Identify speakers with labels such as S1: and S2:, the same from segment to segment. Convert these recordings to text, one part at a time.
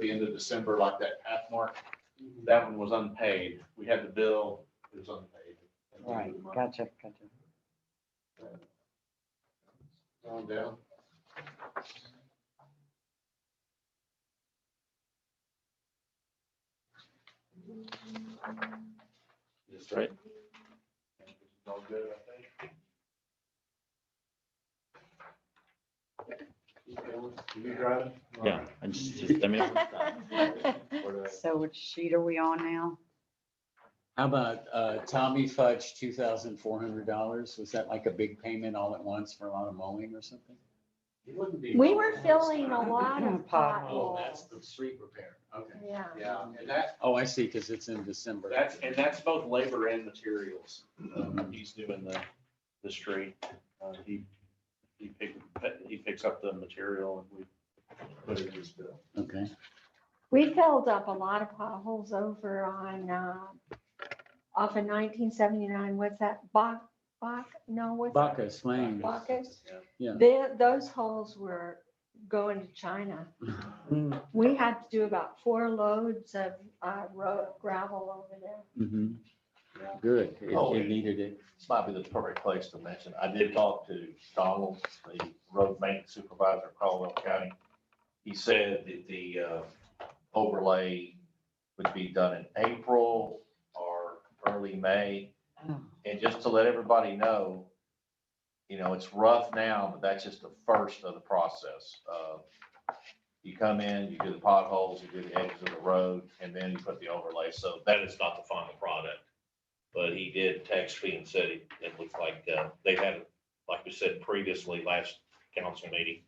S1: the end of December, like that half mark, that one was unpaid. We had the bill, it was unpaid. At the end
S2: Right,
S1: of the month.
S2: gotcha, gotcha.
S1: Going down. Yes, right. All good, I think. You driving?
S3: Yeah, I just, just, I mean,
S1: Or the-
S2: So which sheet are we on now?
S4: How about uh, Tommy Fudge, two thousand four hundred dollars? Was that like a big payment all at once for a lot of mowing or something?
S1: It wouldn't be
S5: We
S1: wrong
S5: were
S1: this
S5: filling a
S1: time.
S5: lot of
S1: Oh, that's
S5: potholes.
S1: the street repair. Okay.
S5: Yeah.
S1: Yeah, and that,
S4: Oh, I see, because it's in December.
S1: that's, and that's both labor and materials. Um, He's doing the,
S3: the street, uh, he, he pick, he picks up the material and we
S1: put it in his bill.
S4: Okay,
S5: We filled up a lot of potholes over on, uh, off of nineteen seventy-nine, what's that, Bach, Bach, no, what's that?
S4: Bacchus Lane.
S5: Buckets?
S1: Yeah.
S4: Yeah.
S5: The- Those holes were going to China.
S6: Mm-hmm.
S5: We had to do about four loads of uh, ro- gravel over there.
S4: Mhm. Good, It-
S7: Oh, yeah.
S4: it needed it.
S7: This might be the perfect place to mention, I did talk to Donald, the road maintenance supervisor of Caldwell County. He said that the uh, overlay would be done in April or early May.
S2: Oh.
S7: And just to let everybody know, you know, it's rough now, but that's just the first of the process. Uh, You come in, you do the potholes, you do the edges of the road, and then you put the overlay, so that is not the final product.
S3: But he did text me and said it it looked like uh, they had, like we said previously, last council meeting,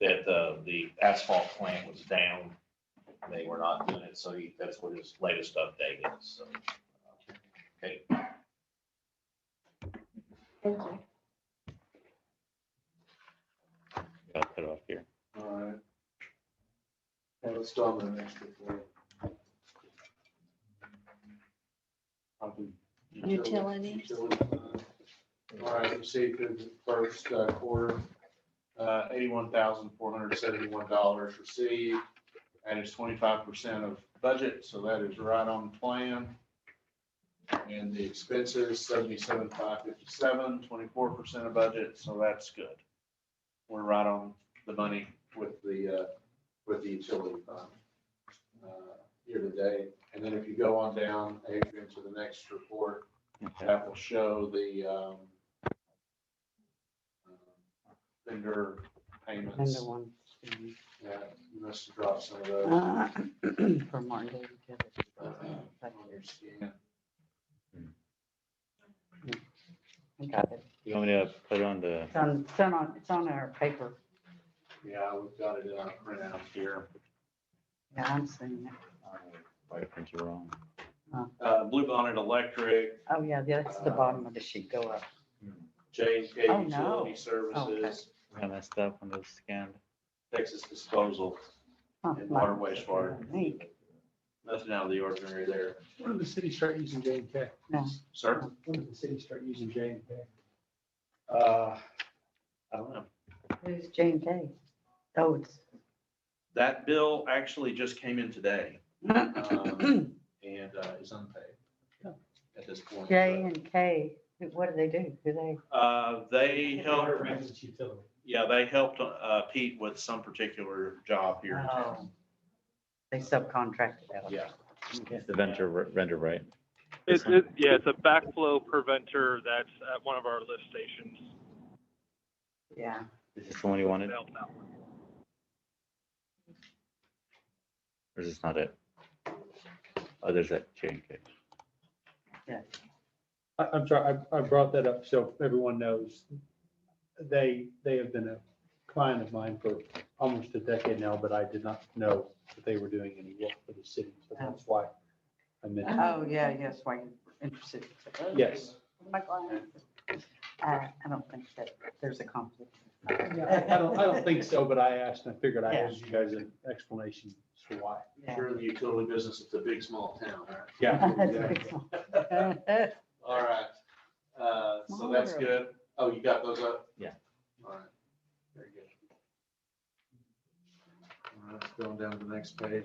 S3: that uh, the asphalt plant was down.
S7: and they were not doing it, so he, that's what his latest update is, so.
S5: Thank you.
S3: I'll put it up here.
S1: All right. Yeah, let's go on to the next report. Probably
S5: Utilities.
S1: Utilities. uh, All right, received through the first uh, quarter, uh, eighty-one thousand, four hundred seventy-one dollars received. That is twenty-five percent of budget, so that is right on plan. And the expenses, seventy-seven, five fifty-seven, twenty-four percent of budget, so that's good. We're right on the money with the, uh, with the utility fund. uh, Here today, and then if you go on down, Adrian, to the next report, that will show the um, um, vendor
S2: And the
S1: payments.
S2: one.
S1: Yeah, You must have dropped some of those.
S2: uh, For Martin Day. Uh-huh.
S1: uh, on your scan.
S2: Got it.
S3: You want me to put on the,
S2: It's on, it's on, it's on our paper.
S1: Yeah, we've got it in our printout here.
S2: Yeah, I'm seeing it.
S3: I think you're wrong.
S1: Uh, Blue Bonnet Electric,
S2: Oh, yeah, that's the bottom of the sheet. Go up.
S1: J and K
S2: Oh, no.
S1: Utility
S2: Okay.
S1: Services,
S3: I messed up on those scanned.
S1: Texas Disposal,
S2: Huh,
S1: and
S2: like
S1: Water Wastewater.
S2: Inc.
S1: Nothing out of the ordinary there.
S6: When did the city start using J and K?
S1: Sir?
S6: When did the city start using J and K?
S1: Uh, I don't know.
S2: Who's J and K? Oh, it's.
S1: That bill actually just came in today Um, and uh, is unpaid at this point.
S2: J and K, Who- what do they do? Who they?
S1: Uh, they helped,
S6: It's utility.
S1: yeah, they helped uh, Pete with some particular job here in town.
S2: Oh. They subcontracted out.
S1: Yeah.
S3: It's the vendor, vendor, right?
S8: It's, it, yeah, it's a backflow preventer that's at one of our lift stations.
S2: Yeah.
S3: Is this the one you wanted,
S8: Help out.
S3: or is this not it? Oh, there's that J and K.
S6: I, I'm sorry, I, I brought that up so everyone knows. They, they have been a client of mine for almost a decade now, but I did not know that they were doing any work for the city, so that's why I mentioned. it.
S2: Oh, yeah, yes, why you're interested.
S6: Yes.
S2: My client. Uh, I don't think that there's a conflict.
S6: Yeah, I I don't, I don't think so, but I asked and I figured I'd ask you guys an explanation as to why.
S2: Yeah.
S1: Sure, the utility business, it's a big, small town, right?
S2: That's a big one.
S1: All right, Uh, so that's
S2: Smaller.
S1: good. Oh, you got those up?
S3: Yeah.
S1: All right, very good. All right, going down to the next page.